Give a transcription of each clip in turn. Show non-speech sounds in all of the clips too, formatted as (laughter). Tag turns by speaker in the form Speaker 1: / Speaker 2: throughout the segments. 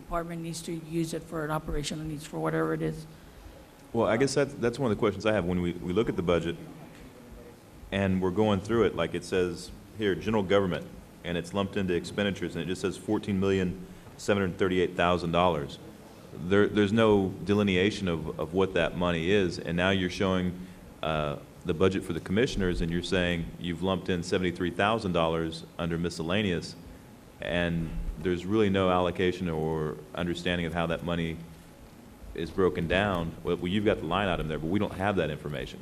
Speaker 1: department needs to use it for an operational needs for whatever it is.
Speaker 2: Well, I guess that's, that's one of the questions I have. When we, we look at the budget and we're going through it, like it says here, general government, and it's lumped into expenditures, and it just says fourteen million, seven hundred and thirty-eight thousand dollars. There, there's no delineation of, of what that money is, and now you're showing, uh, the budget for the commissioners, and you're saying you've lumped in seventy-three thousand dollars under miscellaneous, and there's really no allocation or understanding of how that money is broken down, well, well, you've got the line item there, but we don't have that information.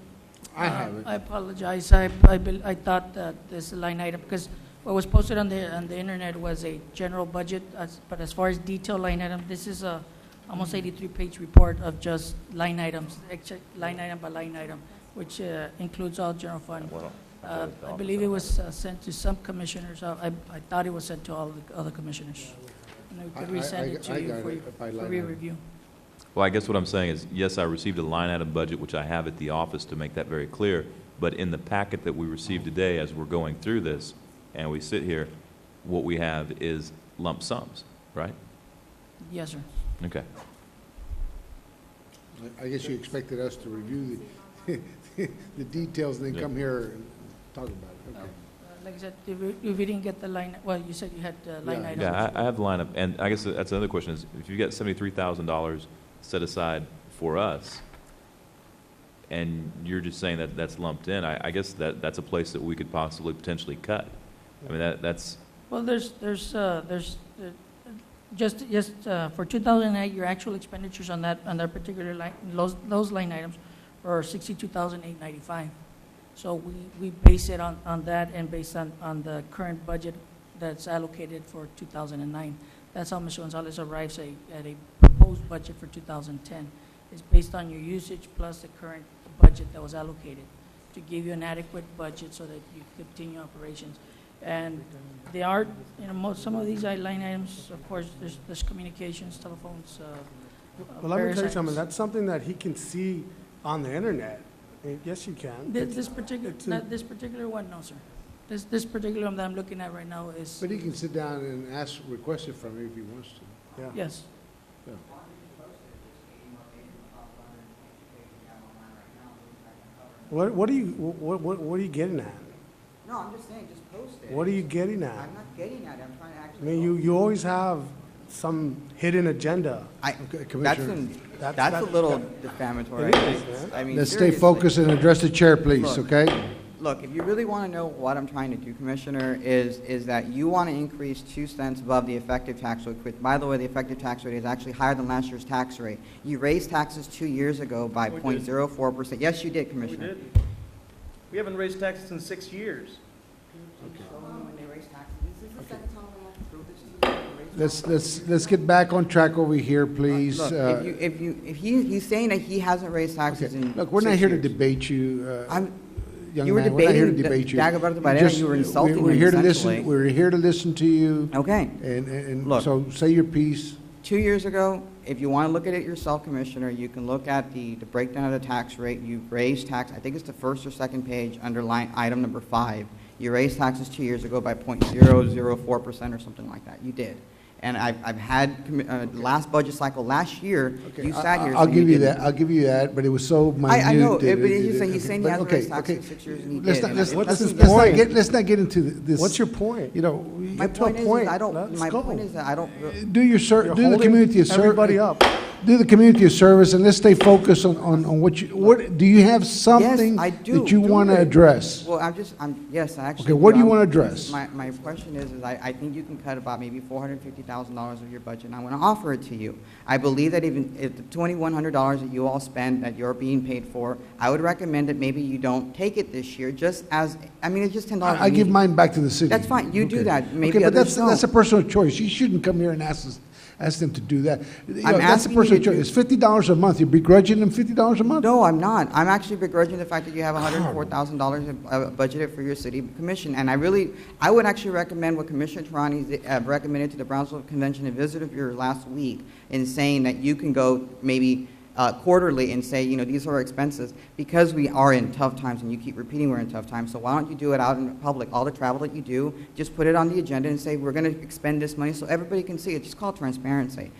Speaker 3: I have it.
Speaker 1: I apologize, I, I bel- I thought that this line item, because what was posted on the, on the internet was a general budget, as- but as far as detail line item, this is a almost 83-page report of just line items, except line item by line item, which uh, includes all general fund.
Speaker 2: Well,
Speaker 1: Uh, I believe it was uh, sent to some commissioners, Uh, I, I thought it was sent to all the other commissioners. And we
Speaker 3: I- I-
Speaker 1: could resend it
Speaker 3: I- I
Speaker 1: to you
Speaker 3: got
Speaker 1: for
Speaker 3: it
Speaker 1: you-
Speaker 3: by
Speaker 1: for
Speaker 3: line item.
Speaker 1: re-review.
Speaker 2: Well, I guess what I'm saying is, yes, I received a line item budget, which I have at the office to make that very clear, but in the packet that we received today, as we're going through this, and we sit here, what we have is lump sums, right?
Speaker 1: Yes, sir.
Speaker 2: Okay.
Speaker 3: I guess you expected us to review the, (laughs) the details and then
Speaker 2: Yeah.
Speaker 3: come here and talk about it, okay.
Speaker 1: Uh, Like I said, if we- if we didn't get the line, well, you said you had uh, line
Speaker 3: Yeah.
Speaker 1: item.
Speaker 2: Yeah, I, I have the lineup, and I guess that's another question, is if you've got seventy-three thousand dollars set aside for us, and you're just saying that that's lumped in, I, I guess that, that's a place that we could possibly potentially cut. I mean, that, that's,
Speaker 1: Well, there's, there's, uh, there's, uh, just, just uh, for 2008, your actual expenditures on that, on that particular line, those, those line items are 62,895. So we, we base it on, on that and based on, on the current budget that's allocated for 2009. That's how Mr. Gonzalez arrives a- at a proposed budget for 2010. It's based on your usage plus the current budget that was allocated to give you an adequate budget so that you continue operations. And they are, you know, most, some of these line items, of course, there's, there's communications, telephones, uh,
Speaker 4: Well, let me tell you
Speaker 1: Parasites.
Speaker 4: something, that's something that he can see on the internet. Eh, Yes, you can.
Speaker 1: This, this particular,
Speaker 4: It's a-
Speaker 1: not this particular one, no, sir. This, this particular one that I'm looking at right now is,
Speaker 3: But he can sit down and ask, request it from me if he wants to.
Speaker 4: Yeah.
Speaker 1: yes.
Speaker 4: What, what are you, what, what, what are you getting at?
Speaker 5: No, I'm just saying, just post it.
Speaker 4: What are you getting at?
Speaker 5: I'm not getting at it, I'm trying to
Speaker 4: I
Speaker 5: actually.
Speaker 4: mean, you, you always have some hidden agenda.
Speaker 5: I,
Speaker 3: Okay,
Speaker 5: that's,
Speaker 3: Commissioner.
Speaker 5: an-
Speaker 4: That's-
Speaker 5: that's a
Speaker 4: that-
Speaker 5: little
Speaker 4: that-
Speaker 5: defamatory.
Speaker 4: It
Speaker 5: I
Speaker 4: is,
Speaker 5: just-
Speaker 4: man.
Speaker 5: I mean,
Speaker 3: Let's stay
Speaker 5: seriously.
Speaker 3: focused and address the chair, please,
Speaker 5: Look.
Speaker 3: okay?
Speaker 5: Look, if you really want to know what I'm trying to do, Commissioner, is, is that you want to increase two cents above the effective tax rate. Which, By the way, the effective tax rate is actually higher than last year's tax rate. You raised taxes two years ago by point zero four percent. Yes, you did,
Speaker 6: We
Speaker 5: Commissioner.
Speaker 6: did. We haven't raised taxes in six years.
Speaker 3: Let's, let's, let's get back on track over here, please.
Speaker 5: Look,
Speaker 3: Uh,
Speaker 5: if you, if you, if he, he's saying that he hasn't raised taxes
Speaker 3: okay.
Speaker 5: in
Speaker 3: Look, we're not here to
Speaker 5: debate.
Speaker 3: debate you, uh,
Speaker 5: I'm,
Speaker 3: young
Speaker 5: you were
Speaker 3: man. We're not here to
Speaker 5: debating
Speaker 3: debate you.
Speaker 5: Dagoberto
Speaker 3: You
Speaker 5: Pereira,
Speaker 3: just-
Speaker 5: you were
Speaker 3: we-
Speaker 5: insulting
Speaker 3: we're
Speaker 5: him,
Speaker 3: here to listen-
Speaker 5: essentially.
Speaker 3: We're here to listen to you,
Speaker 5: okay.
Speaker 3: and, and, and
Speaker 5: Look.
Speaker 3: so say your piece.
Speaker 5: Two years ago, if you want to look at it yourself, Commissioner, you can look at the, the breakdown of the tax rate. You raised tax, I think it's the first or second page, underline item number five. You raised taxes two years ago by point zero zero four percent or something like that. You did. And I've, I've had, commi- uh, the last budget cycle, last year,
Speaker 3: Okay,
Speaker 5: you
Speaker 3: I-
Speaker 5: sat here.
Speaker 3: I'll
Speaker 5: saying you
Speaker 3: give you
Speaker 5: didn't.
Speaker 3: that, I'll give you that, but it was so minute.
Speaker 5: I- I know,
Speaker 3: that
Speaker 5: but
Speaker 3: it-
Speaker 5: he's saying- he's
Speaker 3: okay,
Speaker 5: saying he
Speaker 3: but
Speaker 5: hasn't
Speaker 3: okay,
Speaker 5: raised taxes
Speaker 3: okay.
Speaker 5: in six years and he
Speaker 3: Let's
Speaker 5: did,
Speaker 3: not-
Speaker 5: and
Speaker 3: let's-
Speaker 5: I-
Speaker 4: What's
Speaker 3: let's-
Speaker 4: his
Speaker 3: let's not
Speaker 4: point?
Speaker 3: get- Let's not get into th- this.
Speaker 4: What's your point?
Speaker 3: You know, we
Speaker 5: My
Speaker 3: get to a
Speaker 5: point is, is
Speaker 3: point.
Speaker 5: I don't,
Speaker 4: Let's
Speaker 5: my
Speaker 4: go.
Speaker 5: point is, that I don't,
Speaker 3: Do your ser,
Speaker 4: You're
Speaker 3: do the
Speaker 4: holding
Speaker 3: community a ser-
Speaker 4: everybody up.
Speaker 3: Do the community a service and let's stay focused on, on, on what you, what, do you have something?
Speaker 5: I do.
Speaker 3: That you
Speaker 5: Do
Speaker 3: wanna
Speaker 5: it.
Speaker 3: address?
Speaker 5: Well, I'm just, I'm, yes, I actually.
Speaker 3: Okay, what do you
Speaker 5: I'm-
Speaker 3: wanna
Speaker 5: this
Speaker 3: address?
Speaker 5: is My, my question is, is I, I think you can cut about maybe four hundred and fifty thousand dollars of your budget, and I wanna offer it to you. I believe that even if the twenty-one hundred dollars that you all spend, that you're being paid for, I would recommend that maybe you don't take it this year, just as, I mean, it's just ten dollars.
Speaker 3: I, I give mine back to the city.
Speaker 5: That's fine. You do
Speaker 3: Okay.
Speaker 5: that. Maybe
Speaker 3: Okay, but
Speaker 5: others
Speaker 3: that's,
Speaker 5: don't.
Speaker 3: that's a personal choice. You shouldn't come here and ask us, ask them to do that. You know, That's a
Speaker 5: asking you
Speaker 3: personal
Speaker 5: to
Speaker 3: choice.
Speaker 5: do-
Speaker 3: It's fifty dollars a month. You're begrudging them fifty dollars a month?
Speaker 5: No, I'm not. I'm actually begrudging the fact that you have $104,000 in- uh, budgeted for your city commission. And I really, I would actually recommend what Commissioner Tarani uh, recommended to the Brownsville Convention and Visitor Bureau last week in saying that you can go maybe uh, quarterly and say, you know, these are our expenses, because we are in tough times, and you keep repeating we're in tough times, so why don't you do it out in public? All the travel that you do, just put it on the agenda and say, we're going to expend this money so everybody can see it. Just call it transparency.